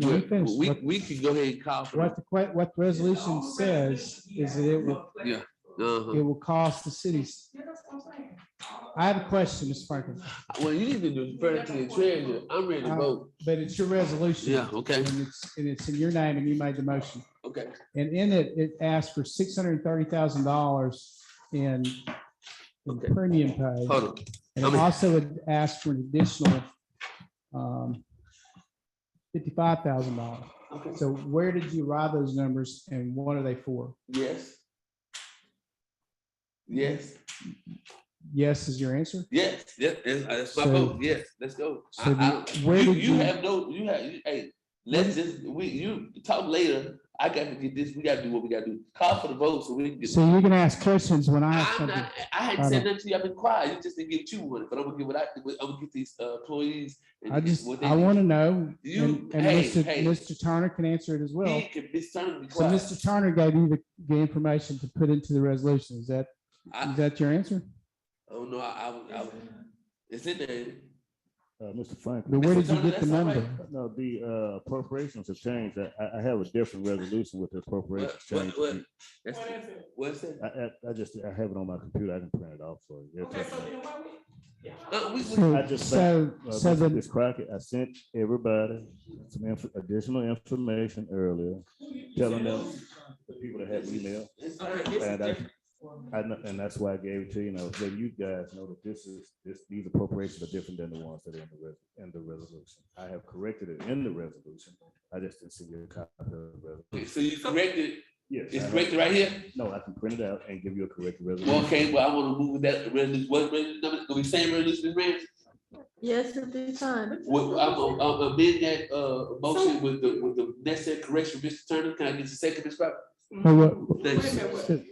No, I'm finished. We, What- we could go ahead and call for What, the que- what the resolution says is that it will, the, uh-huh. it will cost the cities. I have a question, Mr. Franklin, Well, you need to do first to the treasurer. I'm ready to Uh, vote. but it's your resolution. Yeah, okay, And it's, and it's in your name and you made the motion. okay. And in it, it asked for six hundred and thirty thousand dollars in in Okay. premium pay. Hold on. And How it many- also had asked for an additional um, fifty-five thousand dollars. Okay. So where did you arrive those numbers and what are they for? Yes. Yes, Yes is your answer? yes, yes, yes, uh, that's my So- vote. Yes, let's go. So I- I- the- where you- did You you- have no, you have, you- hey, let's just, we, you talk later. I gotta get this, we gotta do what we gotta do. Call for the vote so we can get. So you're gonna ask questions when I ask I'm something. not, I hadn't said nothing to you. I've been quiet. You just didn't get you one, but I'm gonna get what I, I'm gonna get these uh, employees. and I just, what they I need. want to know. You- And and hey, Mr. hey. Mr. Turner can answer it as well. He can be certainly So quiet. Mr. Turner gave you the, the information to put into the resolution. Is that, I, is that your answer? I don't know, I, I, would- I, would- it's in there. Uh, Mr. Franklin, But where Mr. did you Turner, get the that's all number? no, the uh, appropriations have changed. I, I- I have a different resolution with the What, appropriations what, what? change. That's, what's that? I, I, I just, I have it on my computer. I can print it off for you. Uh, we, we, I So, just so, Uh, so Mr. the, Ms. Crockett, I sent everybody some inf- additional information earlier, telling them, the people that had email. it's, all right, it's And I, different. I know, and that's why I gave it to you, you know, so you guys know that this is, this, these appropriations are different than the ones that are in the res, in the resolution. I have corrected it in the resolution. I just didn't see your copy of the Okay, resolution. so you corrected, Yes. it's I have- corrected right here? No, I can print it out and give you a corrected Well, resolution. okay, well, I wanna move that resolution, what resolution, number- gonna be same resolution, Rand? Yes, at this time. Well, I'm, gonna- I'm gonna amend that, uh, motion with the, with the necessary correction, Mr. Turner, can I get the second, Ms. Crockett? oh, what- Thank you.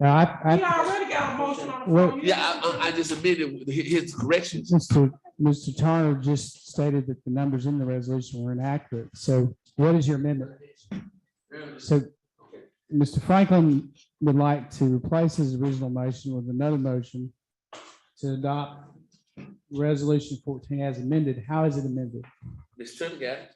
now, I, We I, already got a motion on the Well- floor. You- Yeah, I, I, I just amended with hi- his corrections. Mr. Mr. Turner just stated that the numbers in the resolution were inaccurate. So what is your amendment? So Mr. Franklin would like to replace his original motion with another motion to adopt resolution fourteen as amended. How is it amended? Mr. Turner got it.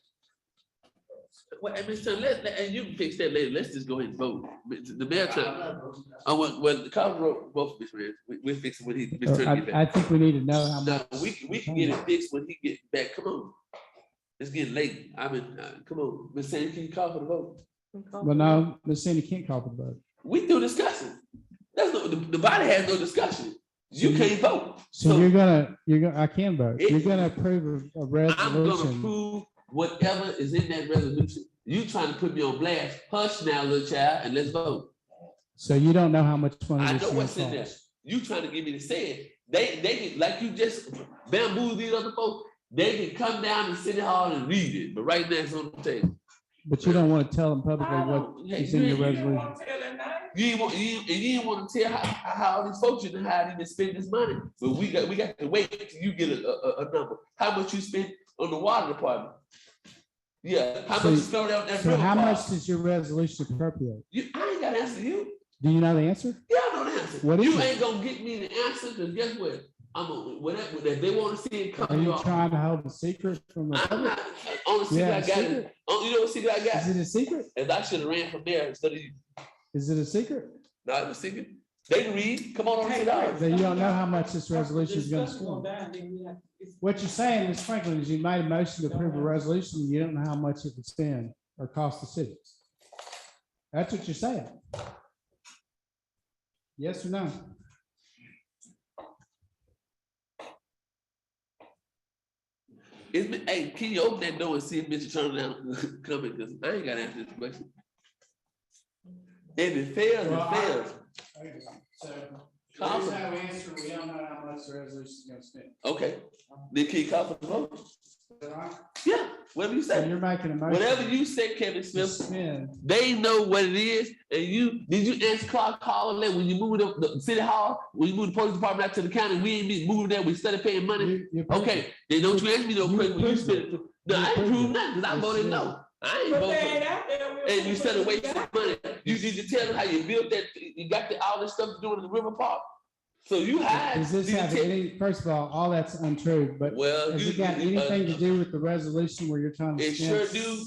Well, and Mr. Turner, let, let- and you can fix that later, let's just go ahead and vote. But The mayor, Turner- I want, well, the call roll, vote, Mr. Rand, we, we'll fix it when he, Mr. Turner get back. Uh, I, I think we need to know how much. No, we, can- we can get it fixed when he get back, come on. It's getting late, I mean, uh, come on, Ms. Sandy, can you call for the vote? Well, no, Ms. Sandy can't call for the vote. We do discussion, that's no, the, the body has no discussion, Mm-hmm. you can't vote. So you're gonna, you're gonna, I can vote. It- You're gonna approve a- a I'm gonna resolution. prove whatever is in that resolution, you trying to put me on blast, hush now, little child, and let's vote. So you don't know how much money. I this know thing what's in there. costs. You trying to get me to say it. They, they, can- like you just bamboozled these other folks. They can come down to City Hall and read it, but right now it's on the table. But you don't want to tell them publicly I what, don't- hey, is you in your ain't- you- You didn't want to tell that name. You ain't want, you, and you didn't want to tell how, how all these folks you done hired even spend this money, but we got, we got to wait till you get a, a, a- a number. How much you spent on the water department? Yeah, how much So- you spent on that? so river how park? much does your resolution appropriate? You, I ain't gotta answer you. Do you know the answer? Yeah, I know the answer. What is you it? ain't gonna get me the answer, cause guess what? I'm gonna, whatever, if they wanna see it Are come, you y'all. trying to hold a secret from the I'm public? not, only secret Yeah, I got, is- secret. oh, you know what secret I Is got? it a secret? Is I should've ran from there instead of you. Is it a secret? No, it was secret. They can read, come on over to the That you don't know how much this resolution is gonna Discussion score. down, then we have to- it's- What you're saying, Ms. Franklin, is you made a motion to approve a resolution, and you don't know how much it would spend or cost the city. That's what you're saying. Yes or no? It's been, hey, can you open that door and see if Mr. Turner down coming, cause I ain't gotta answer this question. If it fails, Well, it I- fails. Call for- answer, we don't know how much the resolution is gonna spend. Okay, then can you call for the vote? Yeah, whatever you So say. you're making a motion. Whatever you say, Kevin to Smith, Spend They know what it is, and you did you ask Clark Hall that when you moved up the city hall, when you moved the police department out to the county, we ain't been moving there, we started paying money. You- you- Okay, then don't you ask me no You question when you approved it. spent. No, I ain't proved nothing, cause I You voted said- no. I ain't But they ain't uh, voted. out there. We'll- And you started wasting money. You need to tell them how you built that, you got the, all this stuff to do in the river park. So you hide. Does this these have ten- any, first of all, all that's untrue, but Well, has you- it got you- uh, anything to do with the resolution where you're trying to? It spend sure do.